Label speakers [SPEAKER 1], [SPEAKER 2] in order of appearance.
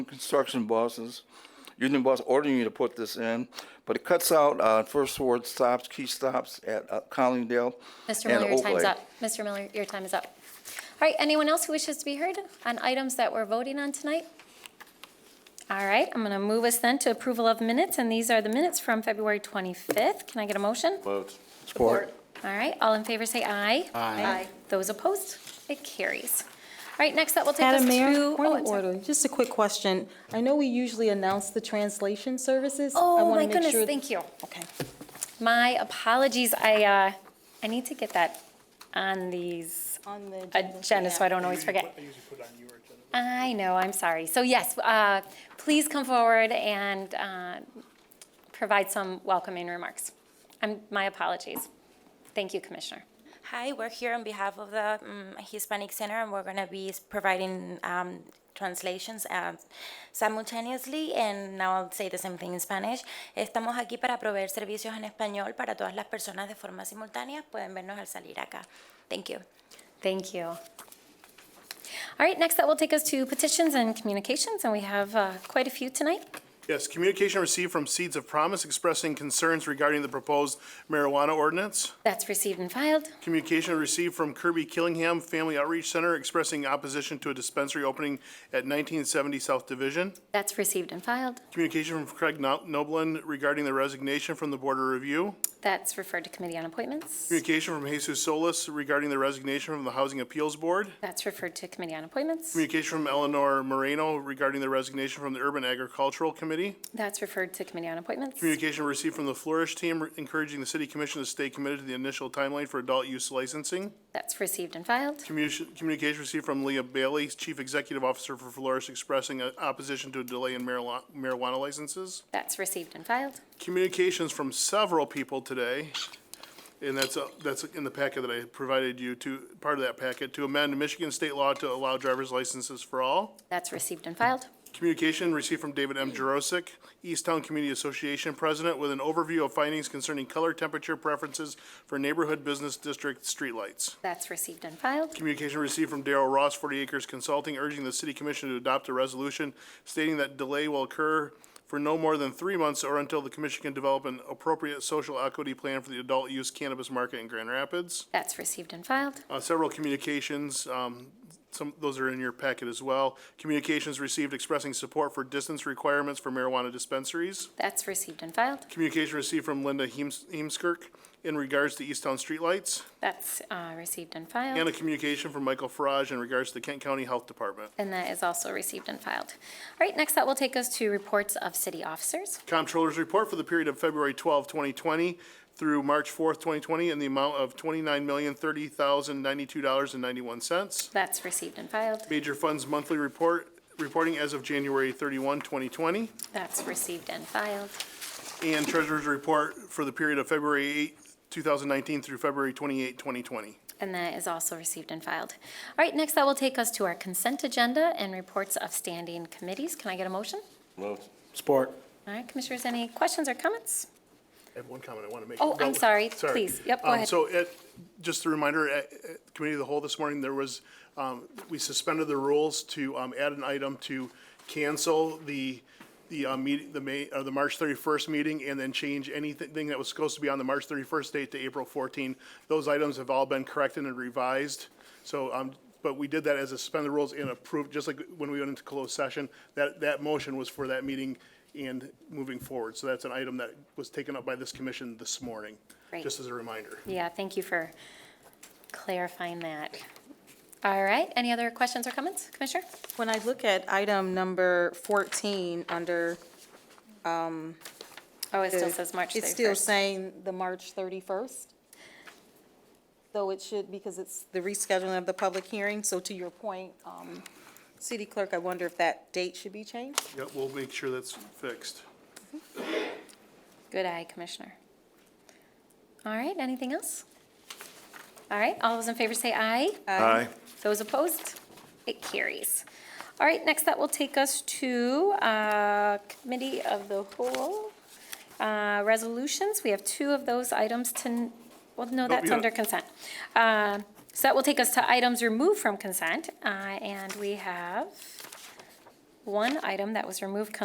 [SPEAKER 1] construction bosses, union boss ordering you to put this in, but it cuts out uh, First Ward stops, key stops at uh, Collingdale and
[SPEAKER 2] Mr. Miller, your time's
[SPEAKER 1] Oakley.
[SPEAKER 2] up. Mr. Miller, your time is up. All right, anyone else who wishes to be heard on items that we're voting on tonight? All right, I'm going to move us then to approval of minutes, and these are the minutes from February 25th. Can I get a motion?
[SPEAKER 3] Vote.
[SPEAKER 1] Support.
[SPEAKER 2] All right, all in favor say aye.
[SPEAKER 3] Aye.
[SPEAKER 2] Those opposed, it carries. All right, next up, we'll take us
[SPEAKER 4] Madam
[SPEAKER 2] to.
[SPEAKER 4] Mayor,
[SPEAKER 2] oh,
[SPEAKER 4] point
[SPEAKER 2] I'm
[SPEAKER 4] of
[SPEAKER 2] sorry.
[SPEAKER 4] order, just a quick question. I know we usually announce the translation services. I
[SPEAKER 2] Oh,
[SPEAKER 4] wanna
[SPEAKER 2] my
[SPEAKER 4] make
[SPEAKER 2] goodness,
[SPEAKER 4] sure-
[SPEAKER 2] thank you.
[SPEAKER 4] Okay.
[SPEAKER 2] My apologies, I, uh, I need to get that on these
[SPEAKER 4] On the agenda,
[SPEAKER 2] agenda, so I
[SPEAKER 4] yeah.
[SPEAKER 2] Uh, don't always forget. I know, I'm sorry. So yes, uh, please come forward and uh, provide some welcoming remarks. Um, My apologies. Thank you, Commissioner.
[SPEAKER 5] Hi, we're here on behalf of the um, Hispanic Center, and we're going to be s- providing um, translations um, simultaneously. And now I'll say the same thing in Spanish. Estamos aquí para proveer servicios en español para todas las personas de forma simultánea. Pueden vernos al salir acá. Thank you.
[SPEAKER 2] Thank you. All right, next that will take us to petitions and communications, and we have uh, quite a few tonight.
[SPEAKER 6] Yes, communication received from Seeds of Promise expressing concerns regarding the proposed marijuana ordinance.
[SPEAKER 2] That's received and filed.
[SPEAKER 6] Communication received from Kirby Killingham Family Outreach Center expressing opposition to a dispensary opening at 1970 South Division.
[SPEAKER 2] That's received and filed.
[SPEAKER 6] Communication from Craig No- Noblin regarding the resignation from the Board of Review.
[SPEAKER 2] That's referred to Committee on Appointments.
[SPEAKER 6] Communication from Jesus Solis regarding the resignation from the Housing Appeals Board.
[SPEAKER 2] That's referred to Committee on Appointments.
[SPEAKER 6] Communication from Eleanor Moreno regarding the resignation from the Urban Agricultural Committee.
[SPEAKER 2] That's referred to Committee on Appointments.
[SPEAKER 6] Communication received from the Flourish Team encouraging the City Commission to stay committed to the initial timeline for adult use licensing.
[SPEAKER 2] That's received and filed.
[SPEAKER 6] Commu- Communication received from Leah Bailey, Chief Executive Officer for Flourish, expressing uh, opposition to a delay in marijua- marijuana licenses.
[SPEAKER 2] That's received and filed.
[SPEAKER 6] Communications from several people today, and that's, uh, that's in the packet that I provided you to, part of that packet, to amend Michigan state law to allow driver's licenses for all.
[SPEAKER 2] That's received and filed.
[SPEAKER 6] Communication received from David M. Jurosik, Easttown Community Association President, with an overview of findings concerning color temperature preferences for neighborhood business district streetlights.
[SPEAKER 2] That's received and filed.
[SPEAKER 6] Communication received from Darrell Ross, 40 Acres Consulting, urging the city commission to adopt a resolution stating that delay will occur for no more than three months or until the commission can develop an appropriate social equity plan for the adult use cannabis market in Grand Rapids.
[SPEAKER 2] That's received and filed.
[SPEAKER 6] Uh, Several communications, um, some, those are in your packet as well. Communications received expressing support for distance requirements for marijuana dispensaries.
[SPEAKER 2] That's received and filed.
[SPEAKER 6] Communication received from Linda Heems- Heemskirk in regards to Easttown streetlights.
[SPEAKER 2] That's uh, received and
[SPEAKER 6] And a
[SPEAKER 2] filed.
[SPEAKER 6] communication from Michael Farage in regards to the Kent County Health Department.
[SPEAKER 2] And that is also received and filed. All right, next that will take us to reports of city officers.
[SPEAKER 6] Comptroller's report for the period of February 12, 2020 through March 4, 2020 in the amount of $29,030,092.91.
[SPEAKER 2] That's received and filed.
[SPEAKER 6] Major Funds Monthly Report, reporting as of January 31, 2020.
[SPEAKER 2] That's received and filed.
[SPEAKER 6] and Treasurer's Report for the period of February 8, 2019 through February 28, 2020.
[SPEAKER 2] And that is also received and filed. All right, next that will take us to our consent agenda and reports of standing committees. Can I get a motion?
[SPEAKER 3] Vote.
[SPEAKER 1] Support.
[SPEAKER 2] All right, commissioners, any questions or comments?
[SPEAKER 6] I have one comment I want to make.
[SPEAKER 2] Oh, I'm sorry. Please. Yep, go
[SPEAKER 6] Um,
[SPEAKER 2] ahead.
[SPEAKER 6] So it, just a reminder, at, at Committee of the Whole this morning, there was, um, we suspended the rules to, um, add an item to cancel the, the, uh, meet, the May, or the March thirty-first meeting and then change anything that was supposed to be on the March thirty-first date to April fourteen. Those items have all been corrected and revised. So, um, but we did that as a suspend the rules and approved, just like when we went into closed session, that, that motion was for that meeting and moving forward. So that's an item that was taken up by this commission this morning.
[SPEAKER 2] Great.
[SPEAKER 6] Just as a reminder.
[SPEAKER 2] Yeah, thank you for clarifying that. All right, any other questions or comments, Commissioner?
[SPEAKER 4] When I look at item number 14 under,
[SPEAKER 2] Oh, it still says March 31st.
[SPEAKER 4] it's still saying the March 31st. Though it should, because it's the rescheduling of the public hearing. So to your point, um, City Clerk, I wonder if that date should be changed?
[SPEAKER 6] Yeah, we'll make sure that's fixed.
[SPEAKER 2] Good eye, Commissioner. All right, anything else? All right, all those in favor say aye.
[SPEAKER 3] Aye.
[SPEAKER 2] Those opposed? It carries. All right, next that will take us to uh, Committee of the Whole uh, Resolutions. We have two of those items to, well, no, that's
[SPEAKER 6] yeah.
[SPEAKER 2] under consent. Uh, So that will take us to items removed from consent, uh, and we have one item that was removed